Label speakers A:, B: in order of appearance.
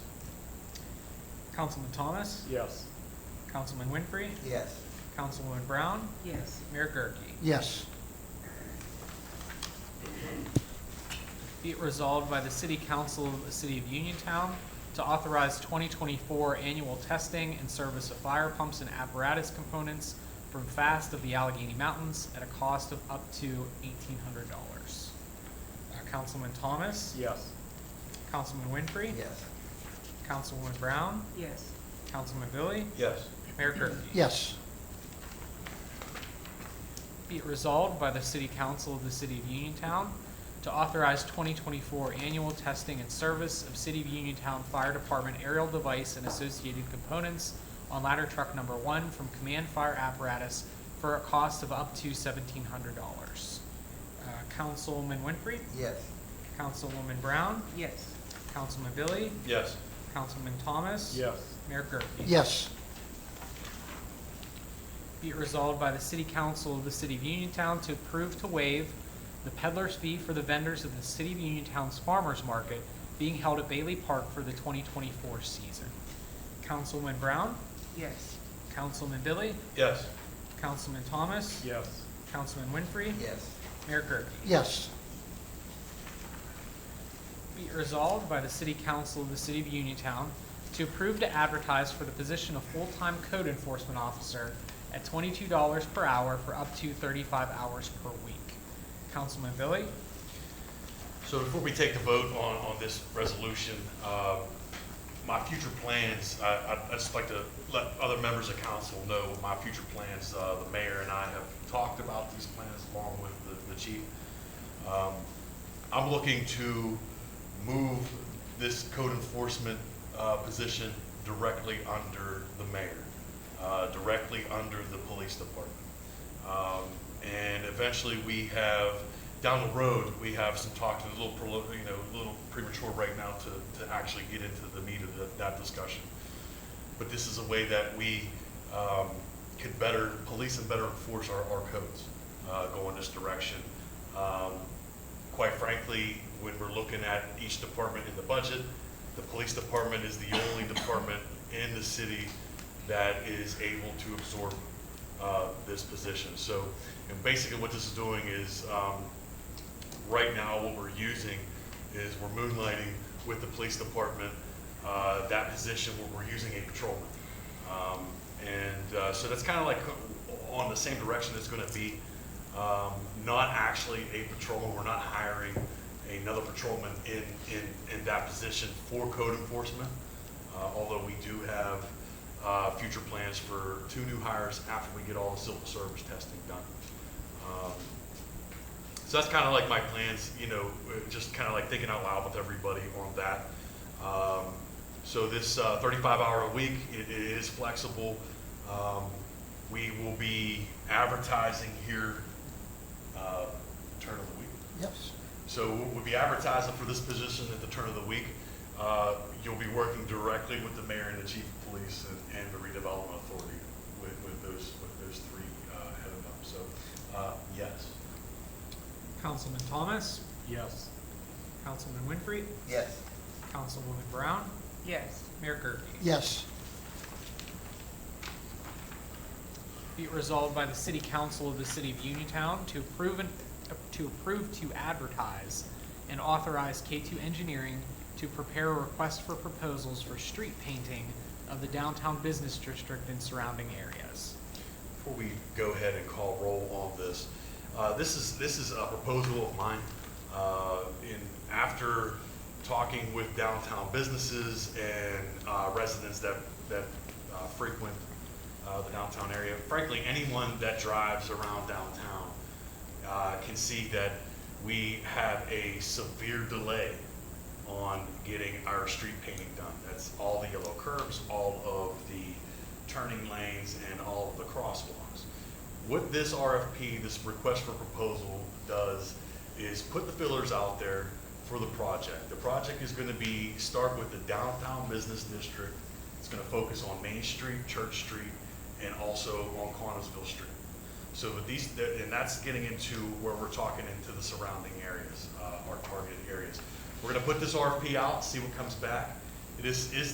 A: Councilman Thomas,
B: Yes.
A: Councilman Winfrey,
C: Yes.
A: Councilwoman Brown,
D: Yes.
A: Mayor Gurke.
C: Yes.
A: Be it resolved by the City Council of the City of Uniontown to authorize 2024 annual testing and service of fire pumps and apparatus components from FAST of the Allegheny Mountains at a cost of up to $1,800. Uh, Councilman Thomas,
B: Yes.
A: Councilman Winfrey,
C: Yes.
A: Councilwoman Brown,
D: Yes.
A: Councilman Billy,
B: Yes.
A: Mayor Gurke.
C: Yes.
A: Be it resolved by the City Council of the City of Uniontown to authorize 2024 annual testing and service of City of Uniontown Fire Department aerial device and associated components on ladder truck number one from Command Fire Apparatus for a cost of up to $1,700. Uh, Councilman Winfrey,
C: Yes.
A: Councilwoman Brown,
D: Yes.
A: Councilman Billy,
B: Yes.
A: Councilman Thomas.
B: Yes.
A: Mayor Gurke.
C: Yes.
A: Be it resolved by the City Council of the City of Uniontown to approve to waive the peddler's fee for the vendors of the City of Uniontown's Farmers Market being held at Bailey Park for the 2024 season. Councilman Brown,
D: Yes.
A: Councilman Billy,
B: Yes.
A: Councilman Thomas,
B: Yes.
A: Councilman Winfrey,
C: Yes.
A: Mayor Gurke.
C: Yes.
A: Be it resolved by the City Council of the City of Uniontown to approve to advertise for the position of full-time code enforcement officer at twenty-two dollars per hour for up to thirty-five hours per week. Councilman Billy,
E: So before we take the vote on, on this resolution, uh, my future plans, I, I- I'd just like to let other members of council know what my future plans, uh, the mayor and I have talked about these plans along with the, the chief. Um, I'm looking to move this code enforcement uh, position directly under the mayor, uh, directly under the police department. Um, And eventually, we have, down the road, we have some talk, a little, prelo- you know, a little premature right now to, to actually get into the meat of that- that discussion. But this is a way that we um, could better, police and better enforce our, our codes, uh, go in this direction. Um, Quite frankly, when we're looking at each department in the budget, the police department is the only department in the city that is able to absorb uh, this position. So, and basically what this is doing is, um, right now, what we're using is we're moonlighting with the police department, uh, that position where we're using a patrolman. Um, and, uh, so that's kind of like on the same direction it's gonna be, um, not actually a patrolman, we're not hiring another patrolman in, in, in that position for code enforcement. Uh, although we do have, uh, future plans for two new hires after we get all the civil service testing done. Um, so that's kind of like my plans, you know, uh, just kind of like thinking out loud with everybody on that. Um, so this uh, 35 hour a week, it, it is flexible. Um, we will be advertising here uh, turn of the week.
C: Yes.
E: So we'll be advertising for this position at the turn of the week. Uh, You'll be working directly with the mayor and the chief of police and- and the redevelopment authority with, with those, with those three uh, headed up. So, uh, yes.
A: Councilman Thomas,
B: Yes.
A: Councilman Winfrey,
C: Yes.
A: Councilwoman Brown,
D: Yes.
A: Mayor Gurke.
C: Yes.
A: Be it resolved by the City Council of the City of Uniontown to approve, and- to approve to advertise and authorize K2 Engineering to prepare a request for proposals for street painting of the downtown business district and surrounding areas.
E: Before we go ahead and call roll on this, uh, this is, this is a proposal of mine. Uh, In, after talking with downtown businesses and uh, residents that, that uh, frequent uh, the downtown area, frankly, anyone that drives around downtown uh, can see that we have a severe delay on getting our street painting done. That's all the yellow curbs, all of the turning lanes, and all of the crosswalks. What this RFP, this request for proposal, does is put the fillers out there for the project. The project is gonna be, start with the downtown business district. It's gonna focus on Main Street, Church Street, and also on Quantasville Street. So these, and that's getting into where we're talking into the surrounding areas, uh, our targeted areas. We're gonna put this RFP out, see what comes back. It is, is